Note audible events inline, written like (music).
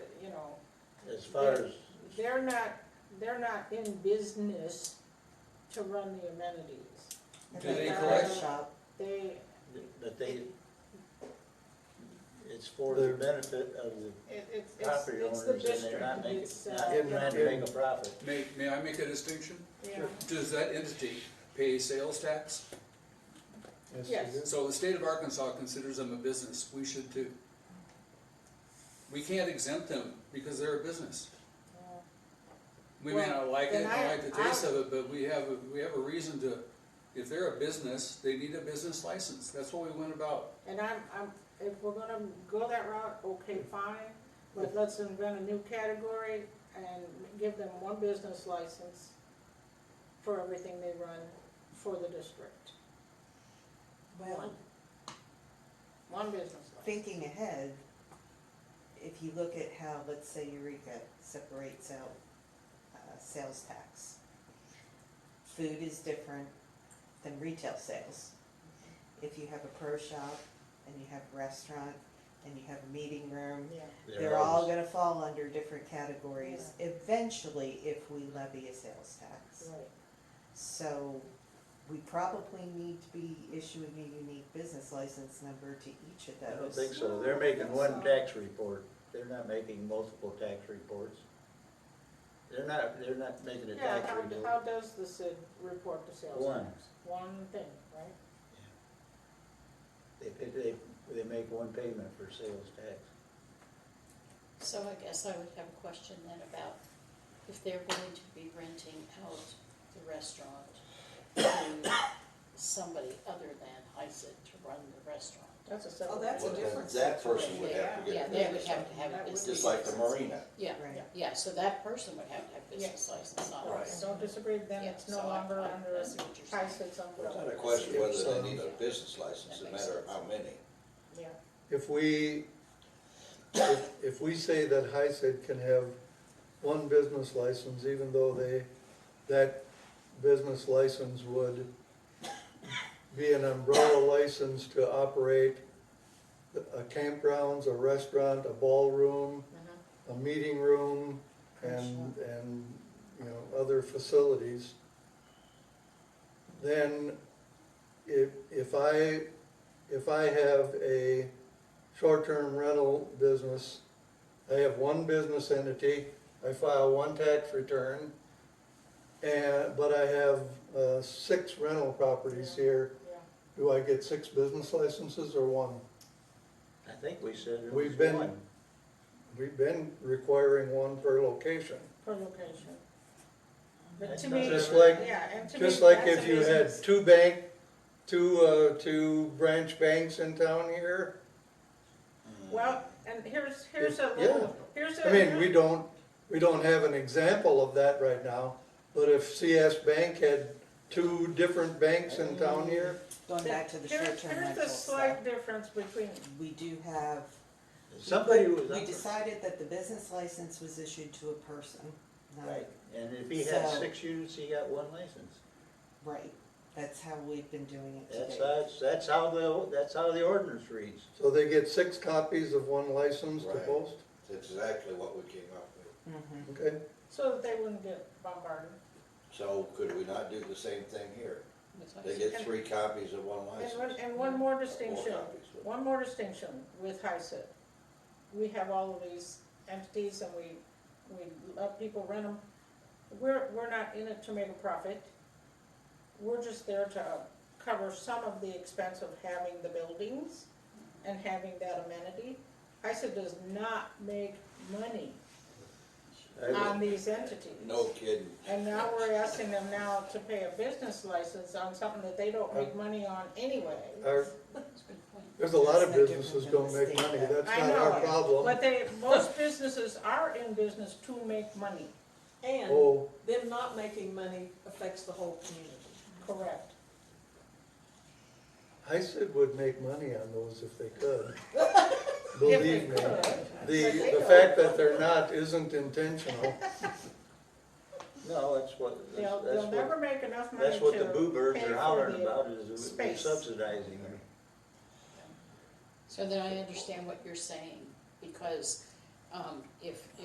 as far as, They're not, they're not in business to run the amenities. If Do I they got a collect? shop, They, but they, it's for the They're- benefit of the it, it's, it's, property it's the owners and they're district, not making, it's, not uh, trying to make a profit. May, may I make a distinction? yeah, Does that entity pay sales tax? Yes. So the state of Arkansas considers them a business, we should too. We can't exempt them because they're a business. yeah. We may not like it, Well, not then like the I- taste of it, but we have, a- we have a reason to, if they're a business, they need a business license, that's what we went about. And I'm, I'm, if we're gonna go that route, okay, fine, but let's invent a new category and give them one business license for everything they run for the district. well, One business license. thinking ahead, if you look at how, let's say Eureka separates out, uh, sales tax. Food is different than retail sales. If you have a pro shop and you have a restaurant and you have a meeting room, Yeah, they're all gonna fall under different categories eventually if we levy a sales tax. right. So we probably need to be issuing a unique business license number to each of I don't those. think so, they're making one tax report, they're not making multiple tax reports. They're not, they're not making a Yeah, tax how, report, how does the Cid report the sales? One. tax? One thing, right? they, pay- they, they make one payment for sales tax. So I guess I would have a question then about if they're going to be renting out the restaurant to somebody other than HISA to run the restaurant. That's a separate. Oh, that's a one. Well, different- that- That person would have to Yeah, get a they would business have to license, have That a would business just like the license. marina. Yeah, Right. yeah, so that person would have to have business license, not Right. us. Don't disagree, then Yeah, it's no so I- longer I- under I see what you're saying. HICID's It's not umbrella. a question whether they need a Yeah. business license, That no makes matter sense. how many. Yeah, If we, if, if we say that HICID can have one business license, even though they, that business license would be an umbrella license to operate a campgrounds, a restaurant, a ballroom, a meeting room, and, and, you know, other facilities, then if, if I, if I have a short-term rental business, I have one business entity, I file one tax return, and, but I have, uh, six rental properties here, yeah. do I get six business licenses or one? I think we said it was We've been- one. We've been requiring one per location. per location. But That's to me, not- Just like- yeah, and to me, Just like that's if a you had business. two bank, two, uh, two branch banks in town here, Well, and here's, here's a Yeah. little, here's a. I mean, we don't, we don't have an example of that right now, but if CS Bank had two different banks in town here, Mm. Going back to the Here- short-term Here's rental the stuff, slight difference between, we do have. Somebody was up We for- decided that the business license was issued to a person, not, Right, and if he had So- six units, he got one license. right, that's how we've been doing it That's, today. that's, that's how the, that's how the ordinance reads. so they get six copies of one license to Right. post, That's exactly what we came up with. Mhm. okay? so that they wouldn't get bombarded. So could we not do the same thing here? That's what I They said. get three copies of one And one, license. and one more distinction, Four copies. one more distinction with HICID. We have all of these entities and we, we let people rent them. We're, we're not in it to make a profit. We're just there to cover some of the expense of having the buildings and having that amenity. HICID does not make money I on would- these entities. No kidding. And now we're asking them now to pay a business license on something that they don't make money on anyway. Our, That's a good point. there's a lot of That's no businesses different don't than make the money, state. that's I not our know, problem. But they, most businesses are in business to make money, And Oh, them not making money affects the whole community. correct? HICID would make money on those if they could. (laughs) If they Believe me. could. The, the fact that they're not isn't intentional. No, that's what, that's They'll, that's they'll never what, make enough money to pay that's for what the. the boo birds are hollering about is we're space. subsidizing them. So then I understand what you're saying, because um, if